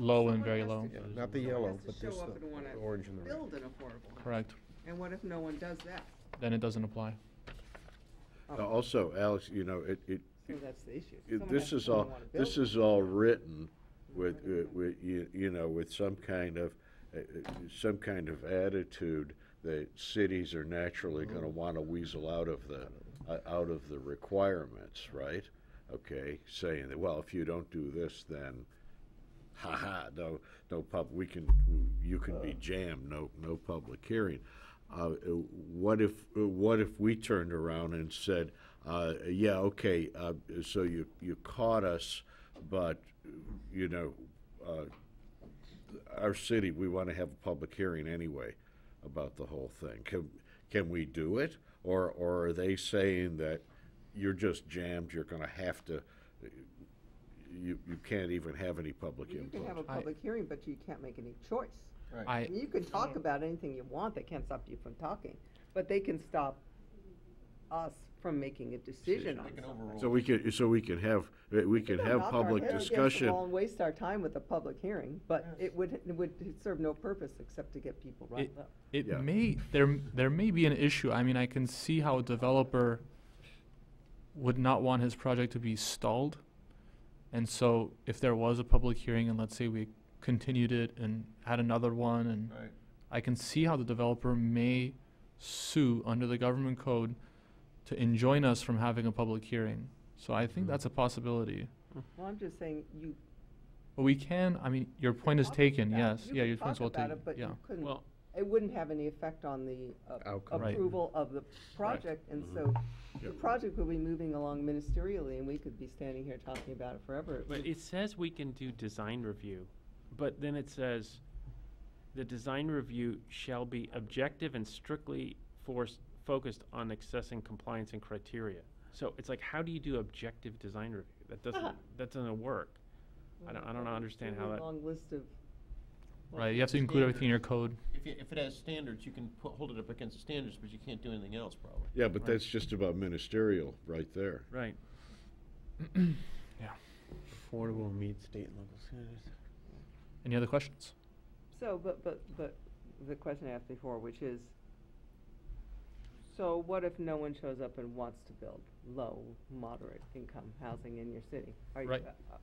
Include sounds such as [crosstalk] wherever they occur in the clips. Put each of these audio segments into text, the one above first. low and Someone very has to low, go. Yeah, There's not the no- yellow, has to but show there's up the and wanna the orange and the red. Build an affordable house. correct, And what if no one does that? then it doesn't apply. Oh. Uh, Also, Alex, you know, it, it, So that's the issue. it- Someone has this to is come and all, wanna build this it. is all written with, uh, with, you, you know, with some kind of, uh, uh, some kind of attitude that cities are naturally Mm-hmm. gonna wanna weasel out of the, uh, out of the requirements, right? Okay, saying that, well, if you don't do this, then, haha, no, no pub, we can, you can be jammed, no, no public hearing. Uh, what if, what if we turned around and said, uh, yeah, okay, uh, so you, you caught us, but, you know, uh, our city, we want to have a public hearing anyway about the whole thing. Can, can we do it? Or, or are they saying that you're just jammed, you're gonna have to, you, you can't even have any public You can have input? a public hearing, but you can't make any choice. I, You can talk about anything you want, they can't stop you from talking, but they can stop us from making a decision on something. So we can, so we can have, we We can don't have knock our public head against the discussion. wall And waste our time with a public hearing, but it would, it would serve no purpose except to get people riled up. it Yeah. may, there, there may be an issue, I mean, I can see how a developer would not want his project to be stalled. And so if there was a public hearing and let's say we continued it and had another one and Right. I can see how the developer may sue under the government code to enjoin us from having a public hearing. So I think that's a possibility. Well, I'm just saying, you. But we can, I mean, your could point is talk taken, about it. yes. You Yeah, could your talk point's well about taken, it, but you yeah. couldn't- Well- It wouldn't have any effect on the uh, Outcome. Mm-hmm. Right. approval of the project, and so the project will be moving along ministerially, and we could be standing here talking about it forever. It But would- it says we can do design review, but then it says, the design review shall be objective and strictly forced, focused on accessing compliance and criteria. So it's like, how do you do objective design review? That Uh-huh. doesn't, that doesn't work. I don't, I don't understand how really that, Long list of. Right, you have to include everything in your code. If it, if it has standards, you can put, hold it up against the standards, but you can't do anything else probably. Yeah, but that's just about ministerial right there. [clears throat] right. Affordable meets state and local standards. Any other questions? So, but, but, but the question I asked before, which is, so what if no one shows up and wants to build low, moderate income housing in your city? Are you- Right. uh, uh,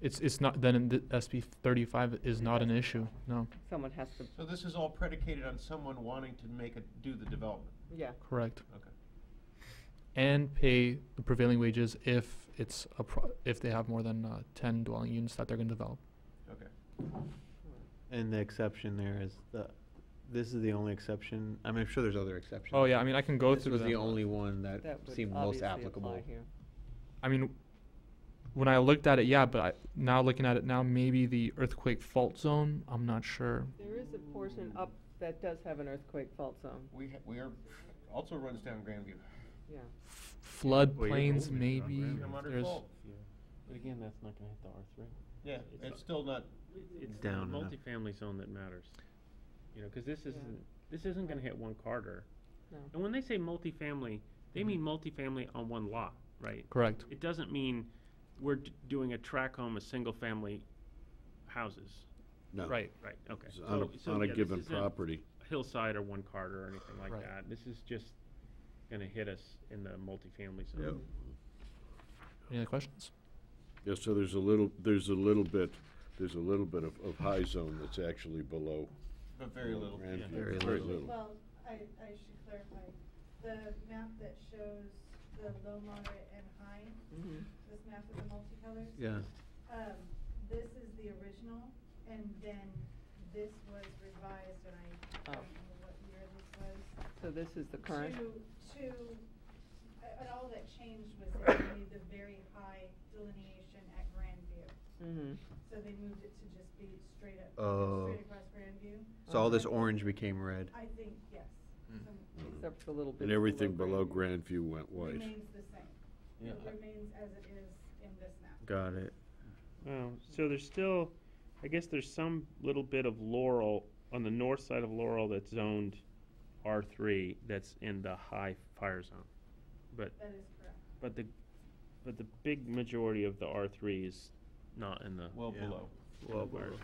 It's, it's not, then the SB thirty-five is not an issue, no, Someone has to, So this is all predicated on someone wanting to make it, do the development, yeah, correct. okay. And pay the prevailing wages if it's a, pro- if they have more than, uh, ten dwelling units that they're gonna develop. Okay. And the exception there is the, this is the only exception, I mean, I'm sure there's other exceptions. Oh, yeah, I mean, I can go This through was them. the only one that that would seemed most obviously applicable. apply here. I mean, when I looked at it, yeah, but I, now looking at it now, maybe the earthquake fault zone. I'm not sure. There is a portion up that does have an earthquake fault zone, We, ha- we are, also runs down Grandview. yeah. F- flood Well, you're plains, moving it on maybe. gravity. I'm if under There's, fault. But again, that's not gonna hit the R three. Yeah, it's still not, It's the Down enough. multifamily zone that matters. You know, cause this Yeah. isn't, this isn't gonna hit one Carter. No. And when they say multifamily, they mean multifamily on one lot, right? correct. It doesn't mean we're d- doing a track home of single-family houses, No. Right. right, okay. It's On So- a, so, on a yeah, this given isn't property. Hillside or one Carter or anything like Right. that, this is just gonna hit us in the multifamily Yep. zone. Any other questions? Yeah, so there's a little, there's a little bit, there's a little bit of, of high zone that's actually below. but very little. Grandview, Very little. Well, I, I should clarify, the map that shows the low, moderate, and high, Mhm. this map with the multicolors. Yeah, Um, this is the original, and then this was revised, and I Oh. don't know what year this was. So this is the current, To, to, uh, and all that changed was they made the very high delineation at Grandview. mhm, So they moved it to just be straight up, Oh. straight across Grandview. so all this orange became red. I think, yes. Some- except for a little bit. And everything below Grandview went white. Remains the same. Yeah, It I- remains as it is in this map. Got it. Oh, so there's still, I guess there's some little bit of Laurel, on the north side of Laurel that's zoned R three, that's in the high fire zone. But That is correct. But the, but the big majority of the R three is not in the, Well Yeah. below. well, we're-